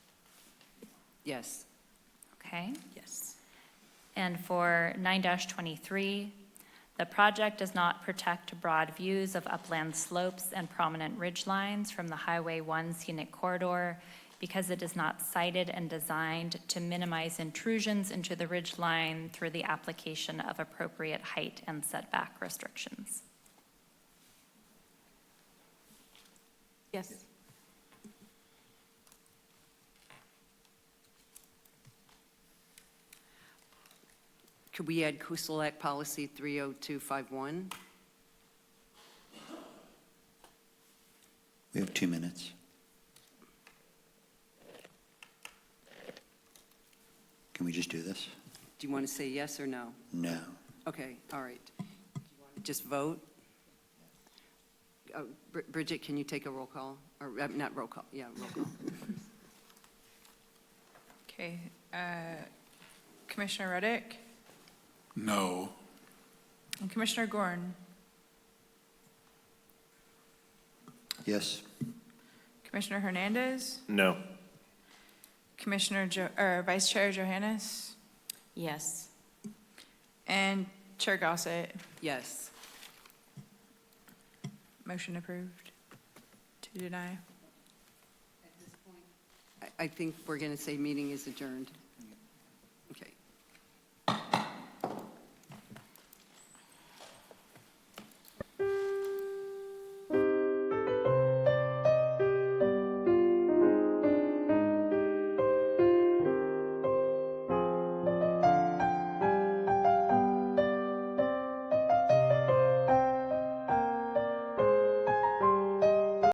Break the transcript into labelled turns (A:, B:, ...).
A: Yes.
B: Okay.
C: Yes.
B: And for nine twenty-three, the project does not protect broad views of upland slopes and prominent ridge lines from the Highway One scenic corridor because it is not sited and designed to minimize intrusions into the ridge line through the application of appropriate height and setback restrictions.
C: Yes.
A: Could we add Coastal Act Policy 30251?
D: We have two minutes. Can we just do this?
A: Do you want to say yes or no?
D: No.
A: Okay, all right. Do you want to Just vote? Uh, Bri- Bridget, can you take a roll call? Or, uh, not roll call, yeah, roll call.
C: Okay. uh, Commissioner Reddick
E: No.
C: and Commissioner Gorn,
D: Yes?
C: Commissioner Hernandez,
E: No.
C: Commissioner, Jo- or Vice Chair Johannes,
A: Yes.
C: and Chair Gossett.
A: Yes.
C: Motion approved. To deny.
A: I- I think we're going to say meeting is adjourned.